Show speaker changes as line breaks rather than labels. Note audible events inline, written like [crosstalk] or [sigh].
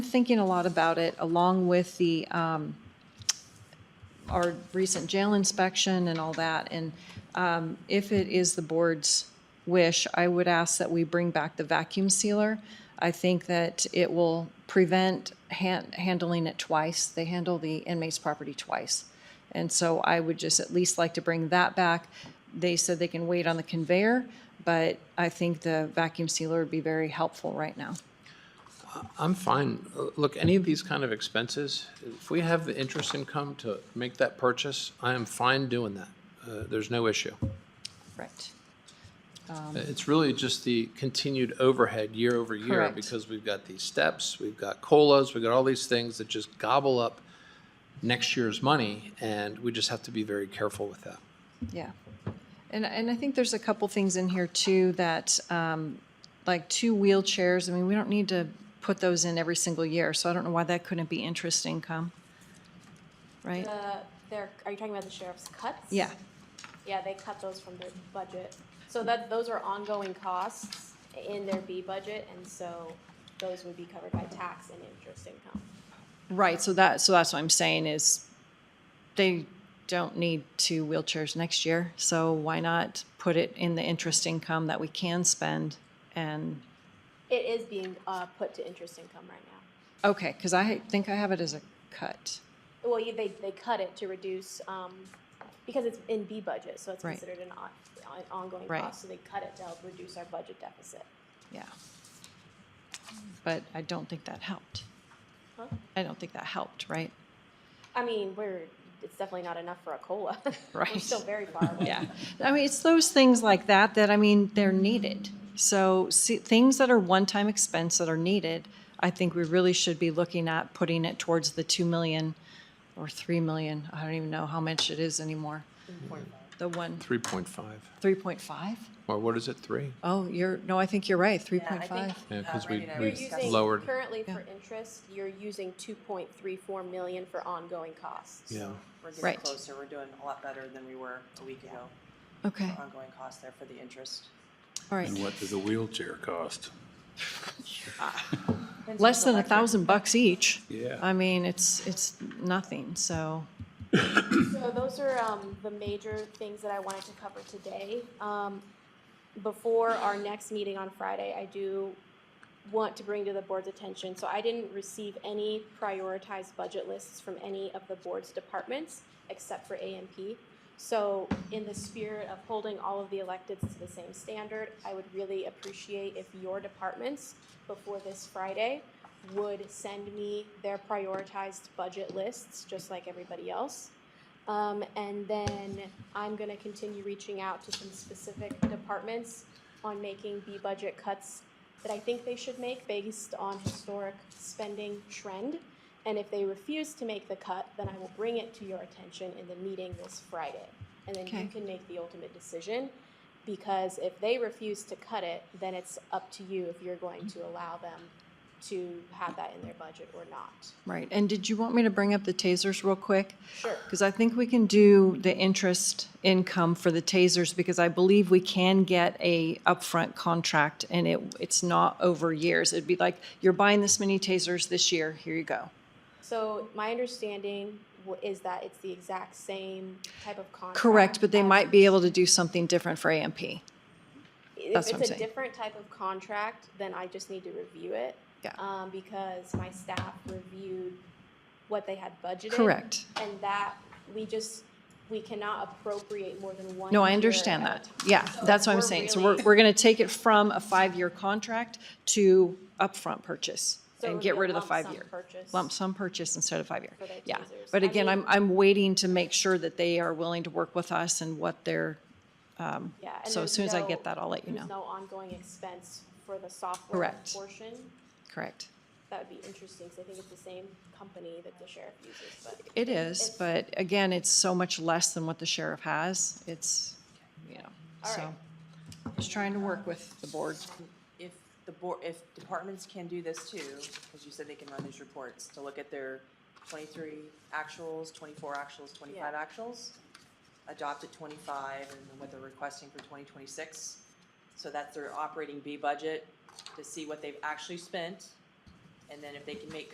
thinking a lot about it, along with the, um, our recent jail inspection and all that. And um, if it is the board's wish, I would ask that we bring back the vacuum sealer. I think that it will prevent han- handling it twice. They handle the inmate's property twice. And so I would just at least like to bring that back. They said they can wait on the conveyor, but I think the vacuum sealer would be very helpful right now.
I'm fine. Uh, Look, any of these kind of expenses, if we have the interest income to make that purchase, I am fine doing that. Uh, There's no issue. Uh,
Right.
It's really just the continued overhead year over year
Correct.
because we've got these steps, we've got COLAs, we've got all these things that just gobble up next year's money, and we just have to be very careful with that.
Yeah. And, and I think there's a couple things in here too that, um, like two wheelchairs, I mean, we don't need to put those in every single year, so I don't know why that couldn't be interest income. Right?
The, they're, are you talking about the sheriff's cuts?
Yeah,
Yeah, they cut those from their budget. So that, those are ongoing costs in their B budget, and so those would be covered by tax and interest income.
right, so that, so that's what I'm saying is they don't need two wheelchairs next year, so why not put it in the interest income that we can spend? And,
It is being, uh, put to interest income right now.
okay, because I think I have it as a cut.
Well, you, they, they cut it to reduce, um, because it's in B budget, so it's
Right.
considered an on, an ongoing
Right.
cost, so they cut it to help reduce our budget deficit.
Yeah. But I don't think that helped.
Huh?
I don't think that helped, right?
I mean, we're, it's definitely not enough for a COLA. [laughs] We're
Right.
still very far
[laughs]
away.
Yeah. I mean, it's those things like that that, I mean, they're needed. So see, things that are one-time expense that are needed, I think we really should be looking at putting it towards the 2 million or 3 million. I don't even know how much it is anymore. The one,
3.5,
3.5?
or what is it, 3?
Oh, you're, no, I think you're right, 3.5.
Yeah, because we,
Uh, You're
we
using,
lowered,
currently
Yeah.
for interest, you're using two point three four million for ongoing costs.
yeah.
We're
Right.
getting closer, we're doing a lot better than we were a week ago.
Okay,
Ongoing cost there for the interest.
all right.
And what does a wheelchair cost?
Less than a thousand bucks each.
Yeah.
I mean, it's, it's nothing, so,
So those are, um, the major things that I wanted to cover today. Um, before our next meeting on Friday, I do want to bring to the board's attention, so I didn't receive any prioritized budget lists from any of the board's departments except for AMP. So in the spirit of holding all of the electeds to the same standard, I would really appreciate if your departments before this Friday would send me their prioritized budget lists, just like everybody else. Um, and then I'm gonna continue reaching out to some specific departments on making B budget cuts that I think they should make based on historic spending trend. And if they refuse to make the cut, then I will bring it to your attention in the meeting this Friday. And then
Okay.
you can make the ultimate decision, because if they refuse to cut it, then it's up to you if you're going to allow them to have that in their budget or not.
right. And did you want me to bring up the tasers real quick?
Sure.
Because I think we can do the interest income for the tasers, because I believe we can get a upfront contract, and it, it's not over years. It'd be like, you're buying this many tasers this year, here you go.
So my understanding wa- is that it's the exact same type of contract. Um,
Correct, but they
as-
might be able to do something different for AMP.
If
that's what I'm
it's a
saying.
different type of contract, then I just need to review it.
Yeah.
Um, because my staff reviewed what they had budgeted.
Correct.
And that, we just, we cannot appropriate more than one.
No, I
year
understand
at
that.
a time.
Yeah,
So
that's what I'm
we're
saying. So
really-
we're, we're going to take it from a five-year contract to upfront purchase
So it
and
would
get
be a
rid of the
lump sum
five-year.
purchase.
Lump sum purchase instead of five-year.
For their
Yeah.
tasers.
But
I
again, I'm,
mean-
I'm waiting to make sure that they are willing to work with us and what they're,
Yeah, and
So as
there's
soon as I
no-
get that, I'll let you
there's
know.
no ongoing expense for the software
Correct.
portion.
correct.
That would be interesting, because I think it's the same company that the sheriff uses, but.
It is,
It's-
but again, it's so much less than what the sheriff has. It's, you know,
All
so.
right.
Just trying to work with the board.
If the board, if departments can do this too, because you said they can run these reports, to look at their twenty-three actuals, twenty-four actuals, twenty-five actuals, adopt at twenty-five and then what they're requesting for twenty twenty-six. So that's their operating B budget, to see what they've actually spent. And then if they can make